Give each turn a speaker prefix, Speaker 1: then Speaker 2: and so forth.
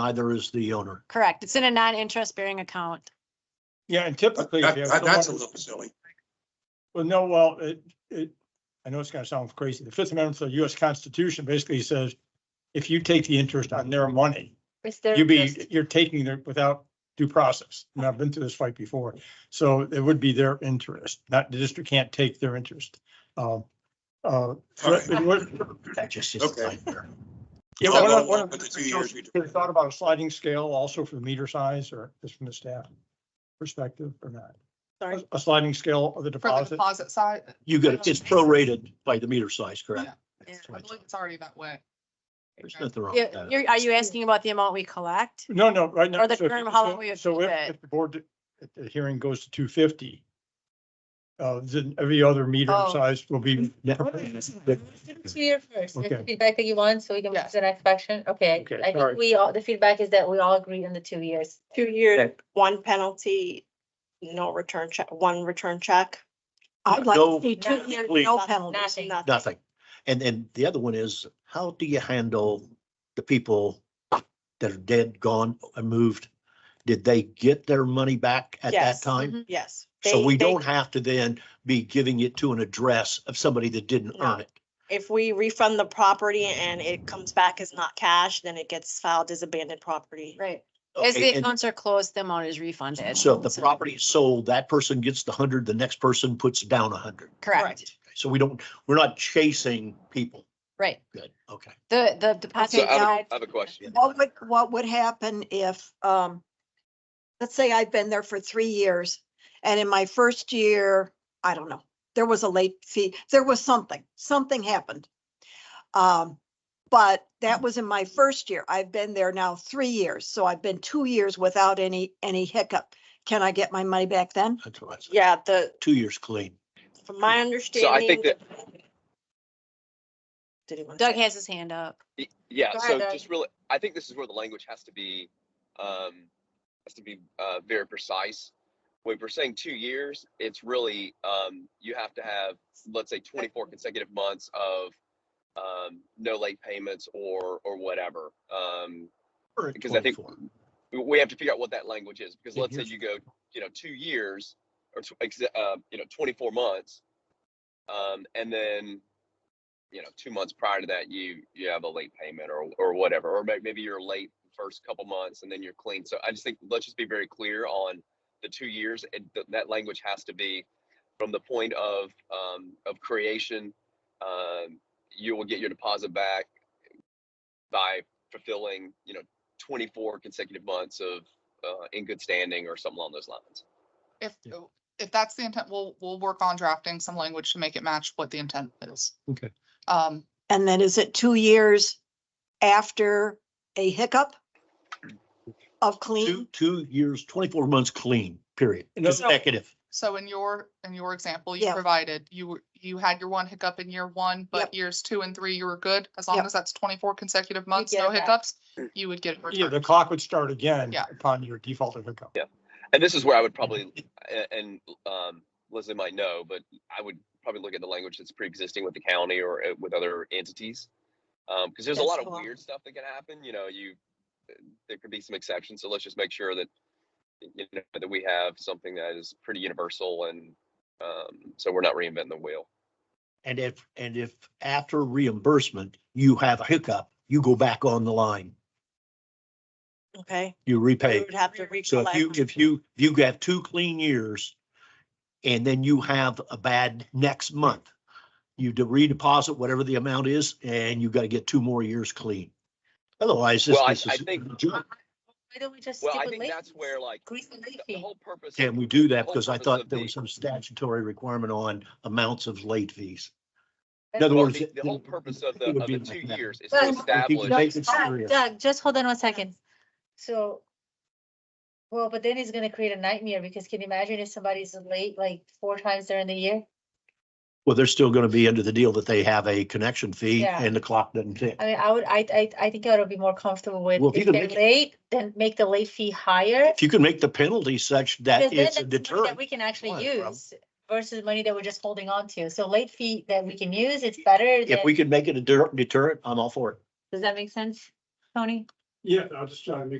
Speaker 1: neither is the owner.
Speaker 2: Correct. It's in a non-interest bearing account.
Speaker 3: Yeah, and typically. if
Speaker 4: That-
Speaker 3: you have
Speaker 4: that- That's a
Speaker 3: someone-
Speaker 4: little silly.
Speaker 3: Well, no, well, it, it, I know it's gonna sound crazy. The Fifth Amendment to the US Constitution basically says if you take the interest on their money, you'd be, you're taking their, without due process. And I've been through this fight before. So it would be their interest, not, the district can't take their interest. Um, uh,
Speaker 4: All right.
Speaker 3: but what-
Speaker 1: That just is a
Speaker 4: Okay.
Speaker 1: nightmare.
Speaker 3: Yeah,
Speaker 4: Well,
Speaker 3: one
Speaker 4: well,
Speaker 3: of, one of,
Speaker 4: with the two years we do-
Speaker 3: have you thought about a sliding scale also for the meter size or just from the staff perspective or not?
Speaker 5: Sorry.
Speaker 3: A sliding scale of the
Speaker 5: For the
Speaker 3: deposit?
Speaker 5: deposit side,
Speaker 1: You get, it's prorated by the meter size, correct?
Speaker 5: I
Speaker 1: That's right.
Speaker 5: believe it's already that way.
Speaker 1: There's nothing wrong
Speaker 2: You-
Speaker 1: with that.
Speaker 2: you're- Are you asking about the amount we collect?
Speaker 3: No, no, right now.
Speaker 2: Or the
Speaker 3: so if-
Speaker 2: term, how long
Speaker 3: so-
Speaker 2: we would
Speaker 3: So
Speaker 2: keep
Speaker 3: if,
Speaker 2: it.
Speaker 3: if the board, if the hearing goes to two fifty, uh, then every other meter
Speaker 5: Oh.
Speaker 3: size will be,
Speaker 1: Yeah.
Speaker 6: Here first, Is
Speaker 3: Okay.
Speaker 6: the feedback that you want, so we can move
Speaker 5: Yes.
Speaker 6: to the next section, okay,
Speaker 3: Okay,
Speaker 6: I
Speaker 3: sorry.
Speaker 6: think we all, the feedback is that we all agree on the two years.
Speaker 7: two years, one penalty, no return check, one return check. I'd like
Speaker 1: No,
Speaker 7: to see two years,
Speaker 1: please.
Speaker 7: no penalties,
Speaker 6: Nothing.
Speaker 7: nothing.
Speaker 1: Nothing. And, and the other one is, how do you handle the people that are dead, gone, and moved? Did they get their money back at that
Speaker 7: Yes.
Speaker 1: time?
Speaker 7: Yes.
Speaker 1: So
Speaker 7: They-
Speaker 1: we
Speaker 7: they-
Speaker 1: don't have to then be giving it to an address of somebody that didn't
Speaker 7: No.
Speaker 1: earn it.
Speaker 7: If we refund the property and it comes back as not cash, then it gets filed as abandoned property.
Speaker 2: Right. As the
Speaker 1: Okay, and-
Speaker 2: accounts are closed, the amount is refunded.
Speaker 1: So if the property is sold, that person gets the hundred, the next person puts down a hundred.
Speaker 2: Correct.
Speaker 1: So we don't, we're not chasing people.
Speaker 2: Right.
Speaker 1: Good, okay.
Speaker 2: The, the
Speaker 8: So
Speaker 2: deposit.
Speaker 8: I have,
Speaker 2: now-
Speaker 8: a- I have a question.
Speaker 9: What would, what would happen if, um, let's say I've been there for three years and in my first year, I don't know, there was a late fee, there was something, something happened. Um, but that was in my first year. I've been there now three years, so I've been two years without any, any hiccup. Can I get my money back then?
Speaker 1: That's what I said.
Speaker 7: Yeah, the,
Speaker 1: Two years clean.
Speaker 7: from my
Speaker 8: So I think
Speaker 7: understanding.
Speaker 8: that,
Speaker 7: Did he want to
Speaker 2: Doug
Speaker 7: say?
Speaker 2: has his hand up.
Speaker 8: y- yeah,
Speaker 6: Go
Speaker 8: so
Speaker 6: ahead, Doug.
Speaker 8: just really, I think this is where the language has to be, um, has to be, uh, very precise. When we're saying two years, it's really, um, you have to have, let's say twenty-four consecutive months of, um, no late payments or, or whatever. Um,
Speaker 1: We're at
Speaker 8: Because I think-
Speaker 1: 24.
Speaker 8: we- we have to figure out what that language is, because
Speaker 1: Yeah,
Speaker 8: let's say
Speaker 1: here's-
Speaker 8: you go, you know, two years or, tw- ex- uh, you know, twenty-four months. Um, and then, you know, two months prior to that, you, you have a late payment or, or whatever, or may- maybe you're late the first couple months and then you're clean. So I just think, let's just be very clear on the two years and th- that language has to be from the point of, um, of creation. Um, you will get your deposit back by fulfilling, you know, 24 consecutive months of uh, in good standing or something along those lines.
Speaker 5: If,
Speaker 1: Yeah.
Speaker 5: if that's the intent, we'll, we'll work on drafting some language to make it match what the intent is.
Speaker 1: Okay.
Speaker 5: Um,
Speaker 9: And then is it two years after a hiccup of
Speaker 1: Two,
Speaker 9: clean?
Speaker 1: two years, twenty-four months clean, period,
Speaker 3: And that's-
Speaker 1: consecutive.
Speaker 5: so in your, in your example you
Speaker 9: Yeah.
Speaker 5: provided, you, were- you had your one hiccup in year one, but years two and three, you were good. As long
Speaker 9: Yep.
Speaker 5: as that's twenty-four consecutive months,
Speaker 6: get
Speaker 5: no
Speaker 6: it back.
Speaker 5: hiccups, you would get it
Speaker 3: yeah,
Speaker 5: returned.
Speaker 3: the clock would start again
Speaker 5: Yeah.
Speaker 3: upon your default hiccup.
Speaker 8: And this is where I would probably, a- and um, Leslie might know, but I would probably look at the language that's pre-existing with the county or uh, with other entities. Because there's a
Speaker 9: That's
Speaker 8: lot of
Speaker 9: cool.
Speaker 8: weird stuff that can happen, you know, you, uh, there could be some exceptions. So let's just make sure that, you know, that we have something that is pretty universal and um, so we're not reinventing the wheel.
Speaker 1: And if, and if after reimbursement, you have a hiccup, you go back on the line,
Speaker 7: Okay,
Speaker 1: you
Speaker 7: we
Speaker 1: repay.
Speaker 7: would have to
Speaker 1: So if you,
Speaker 7: recollect.
Speaker 1: if you, if you have two clean years and then you have a bad next month, you de- redeposit whatever the amount is and you got to get two more years clean. Otherwise, this
Speaker 8: Well, I-
Speaker 1: this
Speaker 8: I
Speaker 1: is
Speaker 8: think-
Speaker 1: a joke.
Speaker 6: Why don't we just?
Speaker 8: Well,
Speaker 6: stick
Speaker 8: I
Speaker 6: with
Speaker 8: think
Speaker 6: late
Speaker 8: that's
Speaker 6: fees?
Speaker 8: where like,
Speaker 6: Increase the late
Speaker 8: the
Speaker 6: fee.
Speaker 8: whole purpose.
Speaker 1: Can
Speaker 8: of-
Speaker 1: we do
Speaker 8: the
Speaker 1: that?
Speaker 8: whole
Speaker 1: Because I
Speaker 8: purpose
Speaker 1: thought
Speaker 8: of
Speaker 1: there
Speaker 8: the-
Speaker 1: was some statutory requirement on amounts of late fees. In
Speaker 6: That's-
Speaker 1: other
Speaker 8: Well,
Speaker 1: words.
Speaker 8: the-
Speaker 1: it-
Speaker 8: The whole purpose of
Speaker 1: it
Speaker 8: the, of
Speaker 1: would be
Speaker 8: the two
Speaker 1: like that.
Speaker 8: years is
Speaker 6: Well,
Speaker 8: to
Speaker 6: if you
Speaker 8: establish.
Speaker 1: Doug, make it
Speaker 6: Doug,
Speaker 1: serious.
Speaker 6: Doug, just hold on one second. So, well, but then it's gonna create a nightmare, because can you imagine if somebody's late like four times during the year?
Speaker 1: Well, they're still going to be under the deal that they have a connection fee
Speaker 6: Yeah.
Speaker 1: and the clock doesn't tick.
Speaker 6: I mean, I would, I, I, I think I would be more comfortable with,
Speaker 1: Well, if you
Speaker 6: if
Speaker 1: could
Speaker 6: they're
Speaker 1: make it-
Speaker 6: late, then make the late fee higher.
Speaker 1: If you can make the penalty such that
Speaker 6: Because then
Speaker 1: it's a
Speaker 6: that's money that
Speaker 1: deterrent.
Speaker 6: We can actually
Speaker 1: Why, bro?
Speaker 6: use versus money that we're just holding on to. So late fee that we can use, it's better.
Speaker 1: If
Speaker 6: than-
Speaker 1: we could make it a deter- deterrent, I'm all for it.
Speaker 6: Does that make sense, Tony?
Speaker 3: Yeah, I'll just try to make